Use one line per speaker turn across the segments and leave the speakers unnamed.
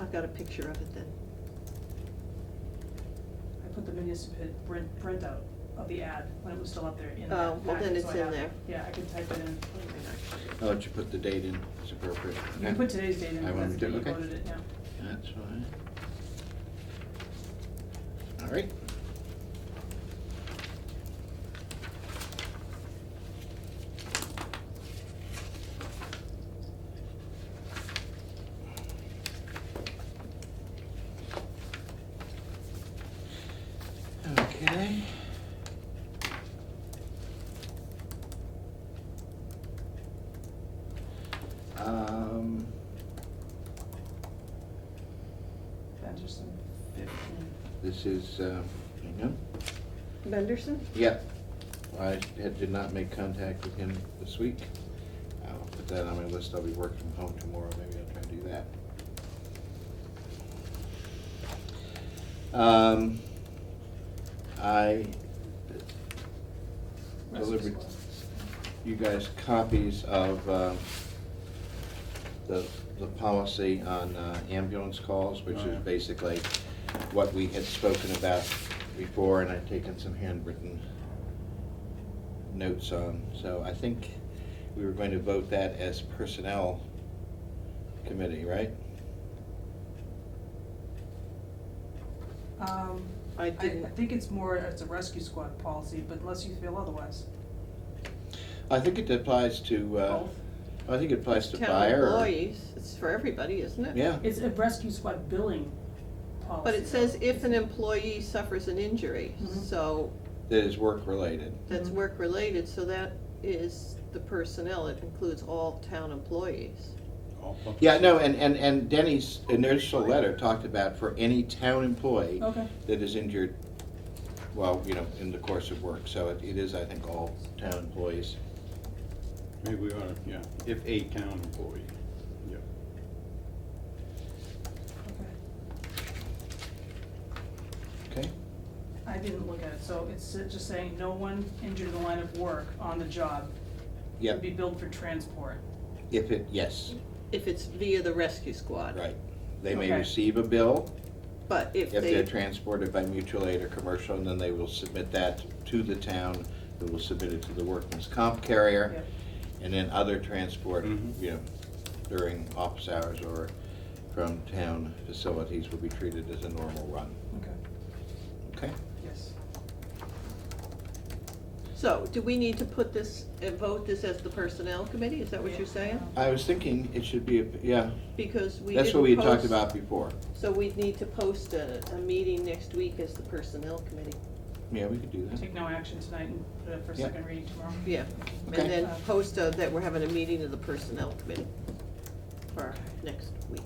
I've got a picture of it then.
I put the municipal print, printout of the ad when it was still up there in that
Oh, well, then
packet,
it's
so I
in
have it.
there.
Yeah, I can type it in.
Hang
I'll let you put the date in, it's appropriate.
You can put today's date in,
I
because that's
wanted to,
when you
okay.
voted it, yeah.
That's fine. All right. Okay. Um,
Anderson, fifteen.
this is, uh, hang on.
on. Benderson?
Yeah, I had, did not make contact with him this week. I'll put that on my list, I'll be working from home tomorrow, maybe I'll try and do that. Um, I delivered you guys copies of, uh, the, the policy on uh, ambulance calls, which
Oh, yeah.
is basically what we had spoken about before, and I've taken some handwritten notes on. So I think we were going to vote that as personnel committee, right?
Um,
I
I, I
didn't.
think it's more, it's a rescue squad policy, but unless you feel otherwise.
I think it applies to, uh,
Both.
I think it applies to
Town
fire. or-
employees, it's for everybody, isn't it?
Yeah,
It's a rescue squad billing policy.
But it says
though.
if an employee suffers an injury,
Mhm.
so
that is work-related.
that's
Mhm.
work-related, so that is the personnel, it includes all town employees.
All public-
Yeah, no, and, and, and Denny's initial letter talked about for any town employee
Oh.
Okay,
that is injured, well, you know, in the course of work, so it, it is, I think, all town employees.
Maybe we ought to, yeah, if a town employee, yeah.
okay.
Okay.
I didn't look at it, so it's just saying no one injured in the line of work on the job.
Yep,
Would be billed for transport.
if it, yes,
If it's via the rescue squad.
right. They may
Okay.
receive a bill
But if
if they're
they,
transported by mutual aid or commercial, and then they will submit that to the town, who will submit it to the workman's comp carrier,
Yep.
and then other transport,
Mhm.
you know, during office hours or from town facilities will be treated as a normal run,
Okay,
okay?
yes.
so do we need to put this, uh, vote this as the personnel committee, is that what
Yeah. um,
you're saying?
I was thinking it should be, a- yeah,
Because we didn't
that's what we had talked
post-
about before.
So we'd need to post a, a meeting next week as the personnel committee,
Yeah, we could do that.
Take no action tonight and put it for
Yeah.
second reading tomorrow.
yeah.
Okay.
And then post uh, that we're having a meeting of the personnel committee for next week,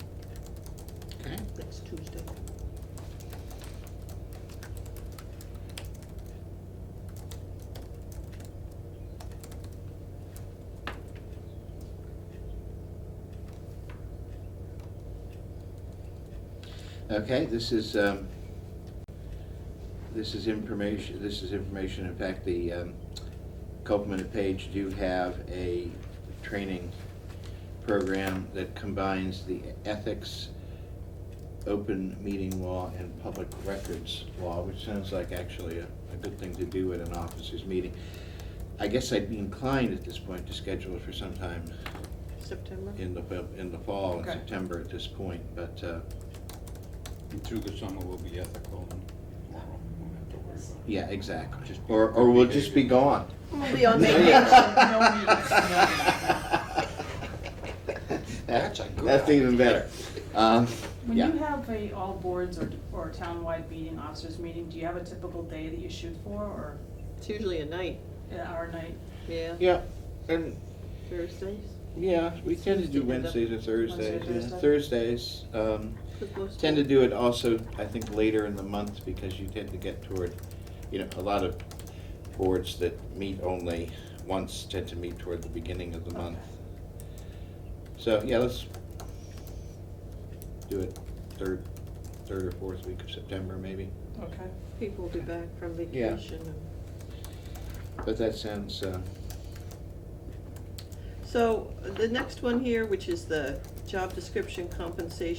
Okay.
next Tuesday.
Okay, this is, um, this is information, this is information, in fact, the, um, Copeland and Page do have a training program that combines the ethics, open meeting law, and public records law, which sounds like actually a, a good thing to do at an officers' meeting. I guess I'd be inclined at this point to schedule it for sometime
September?
in the, in the fall, in
Okay.
September at this point, but, uh,
And through the summer, we'll be ethical and moral, we won't have to worry about it.
Yeah, exactly.
Just be
Or,
good
or we'll just be
behavior.
gone.
We'll be on
No
vacation.
That's a good. That's even better. Um,
When
yeah,
you have a all boards or, or townwide meeting, officers meeting, do you have a typical day that you shoot for or
It's usually a night,
an hour night?
yeah,
yeah, and,
Thursdays,
yeah, we tend to do
Wednesday,
Wednesdays or Thursdays.
Wednesday,
yeah. Thursdays, um,
Could most-
tend to do it also, I think, later in the month because you tend to get toward, you know, a lot of boards that meet only once tend to meet toward the beginning of the month. So, yeah, let's do it third, third or fourth week of September maybe.
Okay,
People will be back from
Yeah.
vacation. and-
But that sounds, uh,
So the next one here, which is the job description compensation